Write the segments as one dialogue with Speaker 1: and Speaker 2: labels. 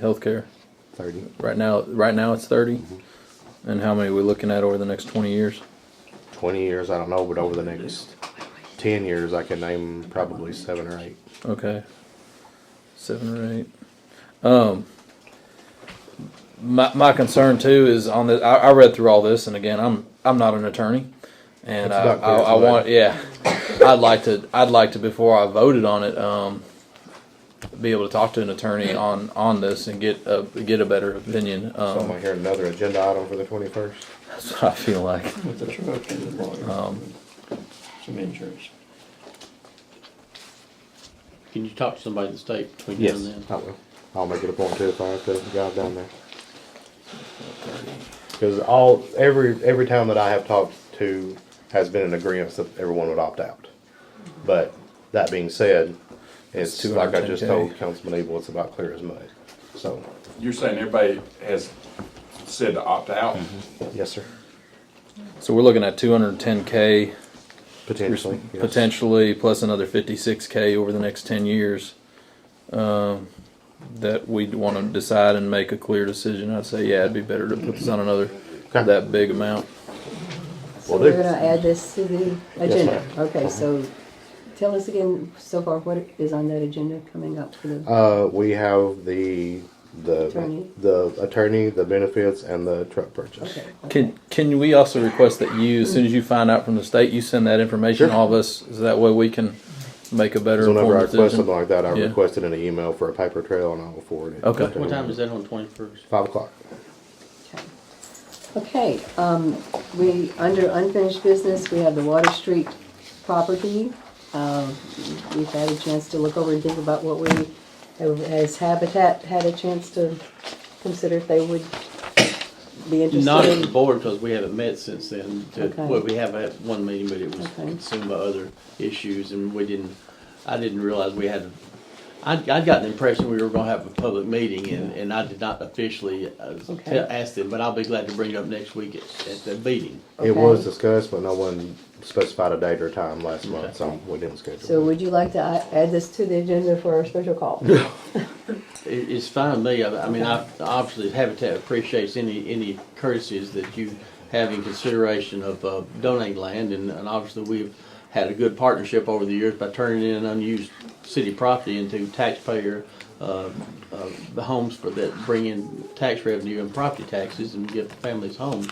Speaker 1: healthcare?
Speaker 2: thirty.
Speaker 1: Right now, right now it's 30
Speaker 2: Mm-hmm.
Speaker 1: And how many are we looking at over the next twenty years?
Speaker 2: Twenty years, I don't know, but over the next ten years, I can name probably seven or eight.
Speaker 1: Okay, seven or eight. Um, my my concern too is on this. I, I read through all this, and again, I'm I'm not an attorney, and
Speaker 2: It's
Speaker 1: I,
Speaker 2: not clear
Speaker 1: I,
Speaker 2: to
Speaker 1: I
Speaker 2: me.
Speaker 1: want yeah, I'd like to I'd like to before I voted on it, um, be able to talk to an attorney on on this and get a get a better opinion.
Speaker 2: So am
Speaker 1: Um,
Speaker 2: I hearing another agenda item for the twenty-first?
Speaker 1: that's what I feel like.
Speaker 3: With the truck and the lawyer,
Speaker 4: Um,
Speaker 3: some insurance.
Speaker 5: Can you talk to somebody in the state between now
Speaker 2: Yes,
Speaker 5: and then?
Speaker 2: I will. I'll make it a point too if I have to drive down there. Because all every every town that I have talked to has been in agreement that everyone would opt out. But that being said, it's
Speaker 1: That's
Speaker 2: like I just
Speaker 1: 210K.
Speaker 2: told Councilman Evil, it's about clear as mud. So,
Speaker 6: You're saying everybody has said to opt out?
Speaker 1: Mm-hmm.
Speaker 2: yes, sir.
Speaker 1: So we're looking at two hundred ten k
Speaker 2: Potentially. yes.
Speaker 1: potentially plus another 56k over the next 10 years um, that we'd want to decide and make a clear decision i'd say yeah it'd be better to put this on another
Speaker 2: Okay.
Speaker 1: that big amount
Speaker 4: So
Speaker 2: Will
Speaker 4: we're
Speaker 2: do.
Speaker 4: gonna add this to the agenda.
Speaker 2: ma'am. Uh-huh.
Speaker 4: Okay, so tell us again so far what is on that agenda coming up for the,
Speaker 2: Uh, we have the the
Speaker 4: Attorney.
Speaker 2: the attorney, the benefits, and the truck purchase.
Speaker 4: okay. okay.
Speaker 1: can can we also request that you as soon as you find out from the state you send that information
Speaker 2: Sure.
Speaker 1: to all of us so that way we can make a better
Speaker 2: So whenever I
Speaker 1: informed
Speaker 2: request
Speaker 1: decision
Speaker 2: something like that, I
Speaker 1: Yeah.
Speaker 2: request it in an email for a paper trail, and I will forward it.
Speaker 1: Okay.
Speaker 2: to
Speaker 5: What time
Speaker 2: them.
Speaker 5: is that on twenty-first?
Speaker 2: Five o'clock.
Speaker 4: Okay, um, we, under unfinished business, we have the Water Street property. Um, we've had a chance to look over and think about what we, has Habitat had a chance to consider if they would be interested?
Speaker 5: Not at
Speaker 4: in-
Speaker 5: the board, because we haven't met since then. to-
Speaker 4: Okay.
Speaker 5: Well, we have had one meeting, but it was
Speaker 4: Okay.
Speaker 5: consumed by other issues, and we didn't, I didn't realize we had, I, I'd gotten the impression we were gonna have a public meeting, and, and I did not officially uh,
Speaker 4: Okay.
Speaker 5: te- ask them, but I'll be glad to bring it up next week at, at the meeting.
Speaker 2: It
Speaker 4: Okay.
Speaker 2: was discussed, but no one specified a date or time last month, so we didn't schedule.
Speaker 4: So
Speaker 2: it.
Speaker 4: would you like to a- add this to the agenda for our special call?
Speaker 5: It, it's fine with me. I, I mean, I, obviously Habitat appreciates any, any courtesies that you have in consideration of uh, donating land, and, and obviously we've had a good partnership over the years by turning in unused city property into taxpayer, uh, uh, the homes for that bring in tax revenue and property taxes and give families homes.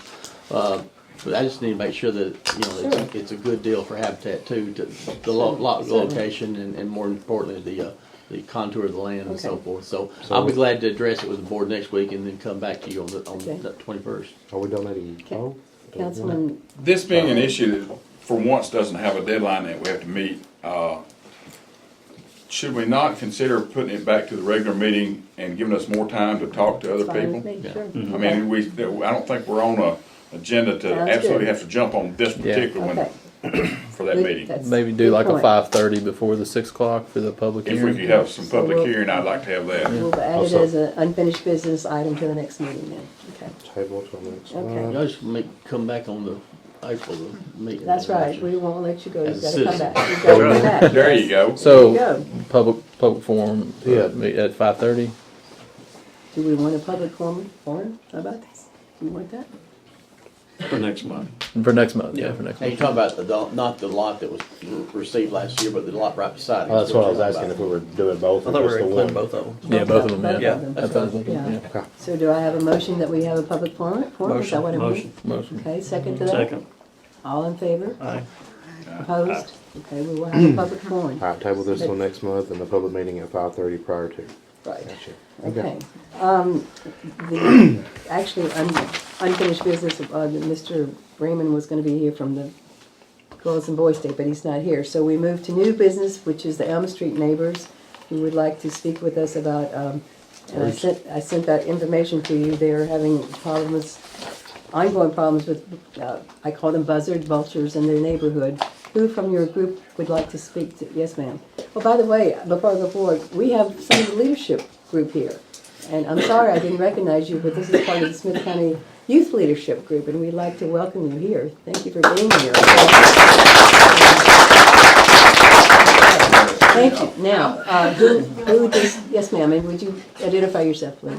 Speaker 5: Uh, but I just need to make sure that, you know, it's, it's a good deal for Habitat too, to, the lo- lo- location and, and more importantly, the, uh, the contour of the land and so
Speaker 4: Okay.
Speaker 5: forth. So I'll be glad to address it with the board next week and then come back to you on the, on
Speaker 4: Okay.
Speaker 5: the twenty-first.
Speaker 2: Are we donating?
Speaker 4: Okay.
Speaker 2: Oh,
Speaker 4: Councilman,
Speaker 6: This being an issue that for once doesn't have a deadline that we have to meet, uh, should we not consider putting it back to the regular meeting and giving us more time to talk to other people?
Speaker 4: fine
Speaker 6: Mm-hmm.
Speaker 4: with me,
Speaker 5: Yeah.
Speaker 4: sure.
Speaker 6: I mean, we, I don't think we're on a agenda to
Speaker 4: Sounds
Speaker 6: absolutely
Speaker 4: good.
Speaker 6: have to jump on this
Speaker 1: Yeah.
Speaker 6: particular one
Speaker 4: Okay.
Speaker 6: for that
Speaker 4: Good.
Speaker 6: meeting.
Speaker 4: That's
Speaker 1: maybe
Speaker 4: good
Speaker 1: do like a
Speaker 4: point.
Speaker 1: 5.30 before the 6 o'clock for the public
Speaker 6: If we
Speaker 1: hearing
Speaker 6: could have some
Speaker 4: So
Speaker 6: public
Speaker 4: we'll-
Speaker 6: hearing, I'd like to have that.
Speaker 4: We'll add it
Speaker 2: Also-
Speaker 4: as an unfinished business item to the next meeting then, okay.
Speaker 2: Table till next
Speaker 4: Okay.
Speaker 2: month.
Speaker 5: Y'all just make, come back on the April meeting.
Speaker 4: That's right, we won't let you go, you've
Speaker 5: As
Speaker 4: gotta
Speaker 5: a
Speaker 4: come back. You've gotta come back.
Speaker 6: There you go.
Speaker 4: There
Speaker 1: so
Speaker 4: you go.
Speaker 1: public public forum uh,
Speaker 2: Yeah.
Speaker 1: meet at 5.30
Speaker 4: Do we want a public forum, forum about this? You want that?
Speaker 3: For next month.
Speaker 1: for next month yeah, for next
Speaker 5: And
Speaker 1: month
Speaker 5: you talk about the, do- not the lot that was re- received last year, but the lot right beside it.
Speaker 2: Oh, that's what I was
Speaker 5: You're
Speaker 2: asking, if
Speaker 5: talking
Speaker 2: we were doing both
Speaker 7: I
Speaker 2: or
Speaker 7: thought we
Speaker 2: just
Speaker 7: were
Speaker 2: the
Speaker 7: including
Speaker 2: one.
Speaker 7: both of them.
Speaker 1: yeah both of them
Speaker 4: Both
Speaker 1: yeah,
Speaker 4: of them.
Speaker 1: That's what I was looking,
Speaker 4: Yeah.
Speaker 1: yeah.
Speaker 4: So do I have a motion that we have a public forum, forum, is that
Speaker 7: Motion,
Speaker 4: what I mean?
Speaker 7: motion.
Speaker 1: Motion.
Speaker 4: Okay, second to that?
Speaker 7: Second.
Speaker 4: All in favor?
Speaker 7: Aye.
Speaker 6: Uh,
Speaker 4: Opposed? Okay, we will have a public forum.
Speaker 2: All right, table this till next month and the public meeting at five thirty prior to.
Speaker 4: Right.
Speaker 2: Gotcha.
Speaker 4: Okay. Um, the, actually, un- unfinished business, uh, that Mr. Raymond was gonna be here from the Girls and Boys Day, but he's not here. So we move to new business, which is the Elm Street neighbors, who would like to speak with us about, um, and I sent, I sent that information to you. They're having problems, ongoing problems with, uh, I call them buzzard vultures in their neighborhood. Who from your group would like to speak to, yes, ma'am? Well, by the way, before I go forward, we have some of the leadership group here. And I'm sorry I didn't recognize you, but this is part of the Smith County Youth Leadership Group, and we'd like to welcome you here. Thank you for being here. Thank you. Now, uh, who, who, does- yes, ma'am, and would you identify yourself, please?